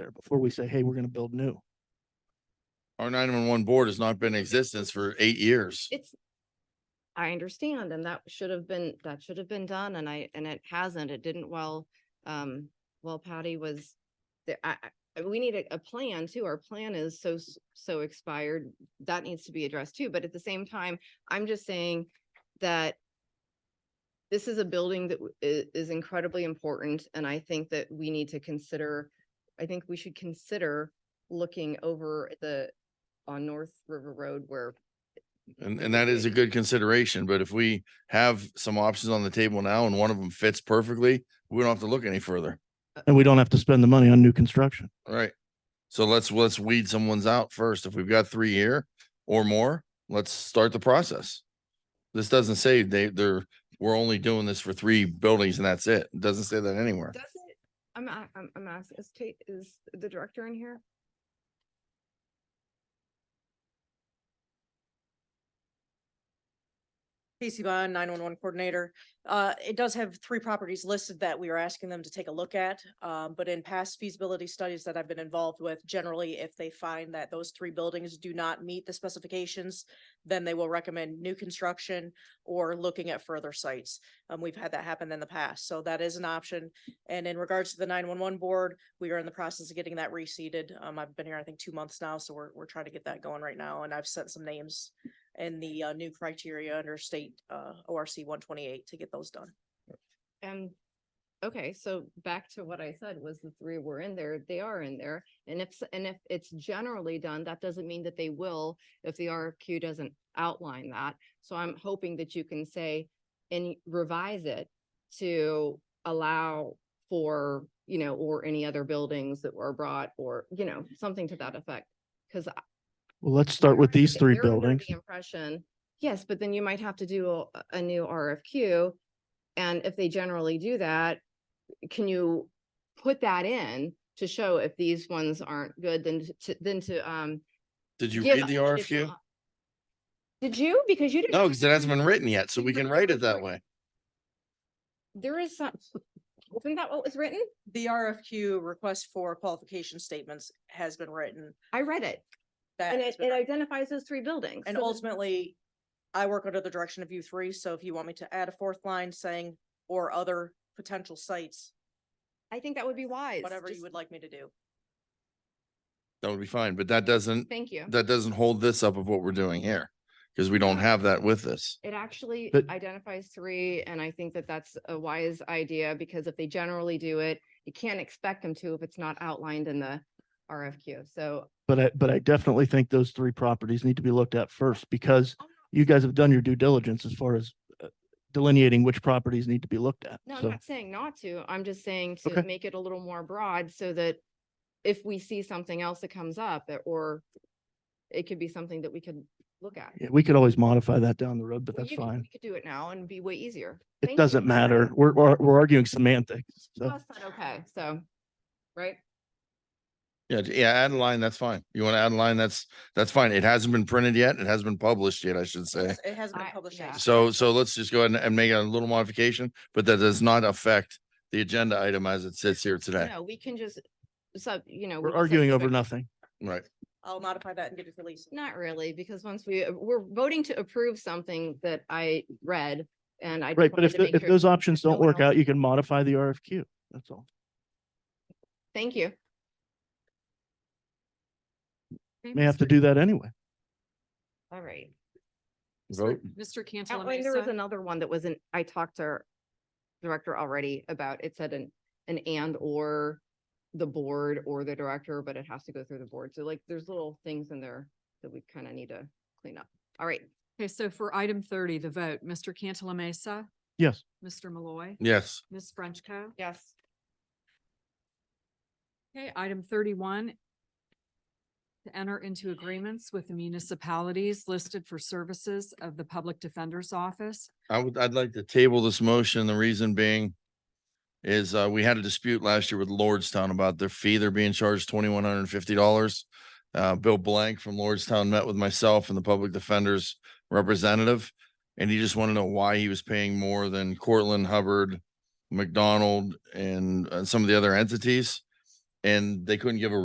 there before we say, hey, we're gonna build new. Our nine-one-one board has not been in existence for eight years. It's, I understand, and that should have been, that should have been done, and I, and it hasn't, it didn't while, um, while Patty was there, I, I, we need a, a plan too, our plan is so, s- so expired, that needs to be addressed too, but at the same time, I'm just saying that this is a building that w- i- is incredibly important, and I think that we need to consider, I think we should consider looking over the, on North River Road where And, and that is a good consideration, but if we have some options on the table now and one of them fits perfectly, we don't have to look any further. And we don't have to spend the money on new construction. All right. So let's, let's weed someone's out first. If we've got three here or more, let's start the process. This doesn't say they, they're, we're only doing this for three buildings and that's it. It doesn't say that anywhere. Does it, I'm, a- I'm, I'm asking, is Tate, is the director in here? Casey Bond, nine one one coordinator. Uh, it does have three properties listed that we are asking them to take a look at. Um, but in past feasibility studies that I've been involved with, generally, if they find that those three buildings do not meet the specifications, then they will recommend new construction or looking at further sites. Um, we've had that happen in the past, so that is an option. And in regards to the nine one one board, we are in the process of getting that reseated. Um, I've been here, I think, two months now, so we're, we're trying to get that going right now, and I've sent some names and the uh, new criteria under state uh, ORC one twenty-eight to get those done. And, okay, so back to what I said was the three were in there, they are in there. And if, s- and if it's generally done, that doesn't mean that they will if the RFQ doesn't outline that. So I'm hoping that you can say and revise it to allow for, you know, or any other buildings that were brought or, you know, something to that effect. Cause Well, let's start with these if three you're under the buildings. Impression, yes, but then you might have to do a, a new RFQ. And if they generally do that, can you put that in to show if these ones aren't good, then to, then to, um. Did you give read the additional RFQ? op- Did you? Because you didn't. No, because it hasn't been written yet, so we can write it that way. There is some, isn't that what was written? The RFQ request for qualification statements has been written. I read it that and has it, been it written, identifies those three buildings. And so there's- ultimately, I work under the direction of you three, so if you want me to add a fourth line saying or other potential sites, I think that would be wise. whatever you just- would like me to do. That would be fine, but that doesn't, Thank you. that doesn't hold this up of what we're doing here. Cause we don't have that with us. It actually But- identifies three, and I think that that's a wise idea, because if they generally do it, you can't expect them to if it's not outlined in the RFQ, so. But I, but I definitely think those three properties need to be looked at first because you guys have done your due diligence as far as uh, delineating which properties need to be looked at. No, I'm So, not saying not to, I'm just saying Okay. to make it a little more broad, so that if we see something else that comes up, it- or it could be something that we could look at. yeah, we could always modify that down the road, but Well, that's you could- fine. We could do it now and be way easier. It Thank you. doesn't matter. We're, we're, we're arguing semantics. So, That's not Okay, so, right? Yeah, j- yeah, add a line, that's fine. You want to add a line, that's, that's fine. It hasn't been printed yet. It hasn't been published yet, I should say. Yes, It has been I- published. yeah. yes. Eh. So, so let's just go ahead and- and make a little modification, but that does not affect the agenda item as it sits here today. No, we can just, sub. you know. we we're can arguing over substitute. nothing. Right. I'll modify that and get it released. Not really, because once we, uh, we're voting to approve something that I read and I. just Right. But wanted if, to the- make if sure- those options no don't one work else- out, you can modify the RFQ. That's all. Thank you. May have to do that anyway. All right. Vote. Mr. Cantala And there was Mesa, another one that wasn't, I talked to our director already about, it said an, an and or the board or the director, but it has to go through the board. So like, there's little things in there that we kind of need to clean up. All right. okay, so for item thirty, the vote, Mr. Cantala Mesa, Yes. Mr. Malloy, Yes, Ms. Frenchco. Yes. Okay, item thirty-one. To enter into agreements with the municipalities listed for services of the Public Defender's Office. I would, I'd like to table this motion. The reason being is, uh, we had a dispute last year with Lordstown about their fee. They're being charged twenty-one hundred and fifty dollars. Uh, Bill Blank from Lordstown met with myself and the public defender's representative. And he just wanted to know why he was paying more than Cortland Hubbard, McDonald, and, uh some of the other entities. And they couldn't give a